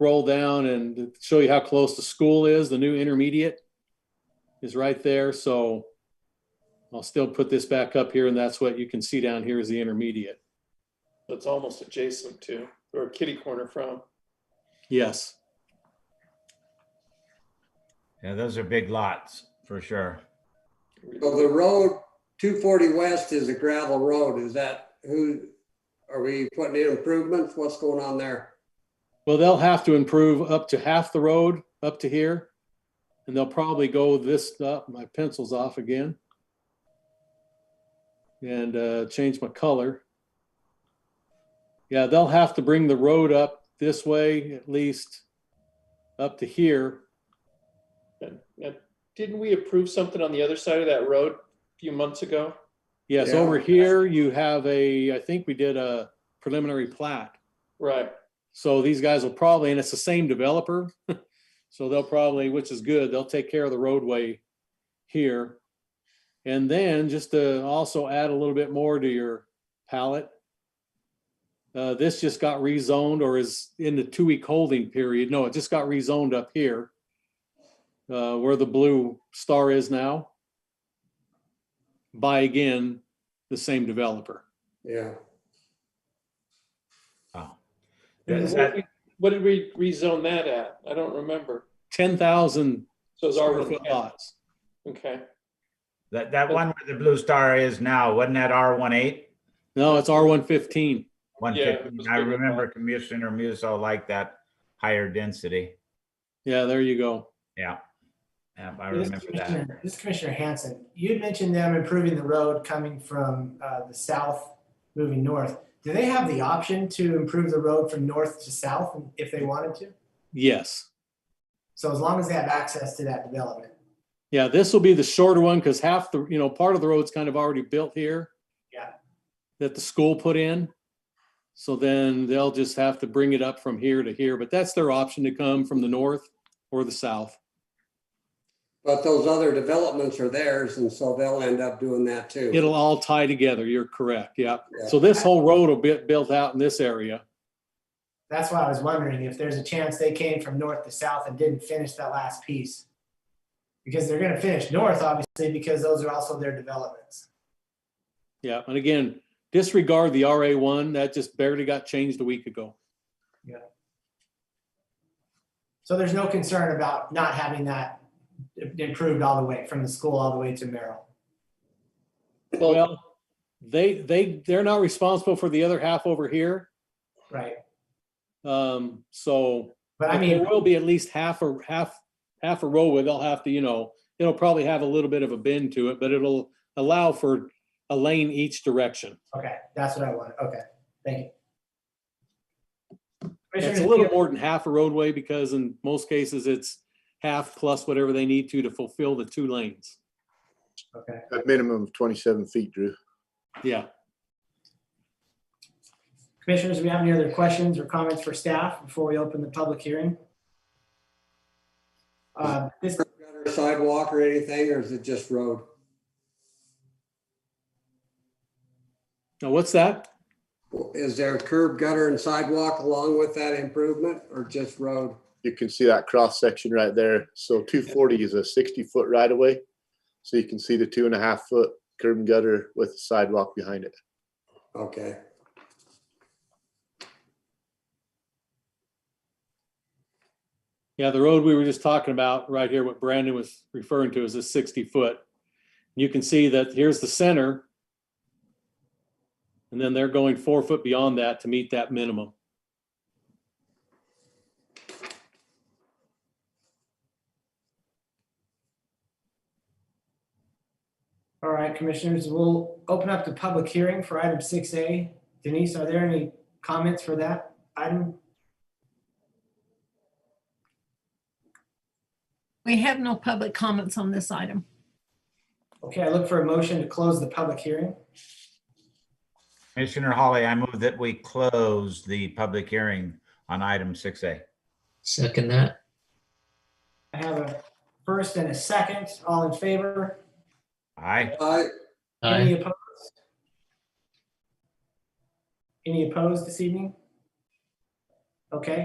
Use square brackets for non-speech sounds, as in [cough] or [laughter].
roll down and show you how close the school is, the new intermediate is right there, so I'll still put this back up here, and that's what you can see down here is the intermediate. That's almost adjacent to, or kitty corner from. Yes, Yeah, those are big lots for sure. So the road, two forty west is a gravel road. Is that who, are we putting in improvements? What's going on there? well, they'll have to improve up to half the road up to here, and they'll probably go this, up. my pencil's off again. And uh, change my color. Yeah, they'll have to bring the road up this way at least up to here. And- and Didn't we approve something on the other side of that road a few months ago? Yes, Yeah. over here you have a, I think we did a preliminary plat. Right, So these guys will probably, and it's the same developer. [laughs] So they'll probably, which is good, they'll take care of the roadway here. And then just to also add a little bit more to your palette. Uh, this just got rezoned or is in the two-week holding period. No, it just got rezoned up here. Uh, where the blue star is now. By again, the same developer. Yeah, Wow. And Is what that- we- What did we rezone that at? I don't remember. Ten thousand So it's square R foot lots. Okay, that, that one where the blue star is now, wasn't that R 18 No, it's R one fifteen. One Yeah, it fifteen, was I bigger than remember Commissioner Musso liked that higher density. Yeah, there you go. Yeah. Yeah, I This is remember that. Commissioner- This is Commissioner Hanson. You had mentioned them improving the road coming from uh, the south, moving north. Do they have the option to improve the road from north to south if they wanted to? Yes. So as long as they have access to that development. Yeah, this will be the shorter one because half the, you know, part of the road's kind of already built here. Yeah. That the school put in. So then they'll just have to bring it up from here to here, but that's their option to come from the north or the south. but those other developments are theirs and so they'll end up doing that too. It'll all tie together. You're correct. Yeah. Yeah. So this whole road will be built out in this area. That's why I was wondering if there's a chance they came from north to south and didn't finish that last piece. Because they're gonna finish north, obviously, because those are also their developments. Yeah. And again, disregard the RA one. That just barely got changed a week ago. So there's no concern about not having that improved all the way from the school all the way to Merrill. Well, they, they, they're not responsible for the other half over here. Right, Um, so but I But mean, There will be at least half a, half, half a row where they'll have to, you know, it'll probably have a little bit of a bend to it, but it'll allow for a lane each direction. okay, that's what I wanted, okay, thank you. It's a Commissioner little Steer- more than half a roadway because in most cases it's half plus whatever they need to to fulfill the two lanes. Okay, A minimum of 27 feet, Drew. Yeah, commissioners, do we have any other questions or comments for staff before we open the public hearing? Uh, This, Gutter Sidewalk or anything, or is it just road? now what's that? Is there curb gutter and sidewalk along with that improvement or just road? You can see that cross section right there. So 240 is a 60 foot right of way. So you can see the two and a half foot curb and gutter with the sidewalk behind it. Okay, Yeah, the road we were just talking about right here, what Brandon was referring to is a sixty foot. You can see that here's the center. And then they're going four foot beyond that to meet that minimum. all right, commissioners, we'll open up the public hearing for item six A. Denise, are there any comments for that item? We have no public comments on this item. Okay, I look for a motion to close the public hearing. Commissioner Holly, I move that we close the public hearing on item six A. Second that. I have a first and a second, all in favor? Aye. I, Any Aye. opposed? Any opposed this evening? Okay,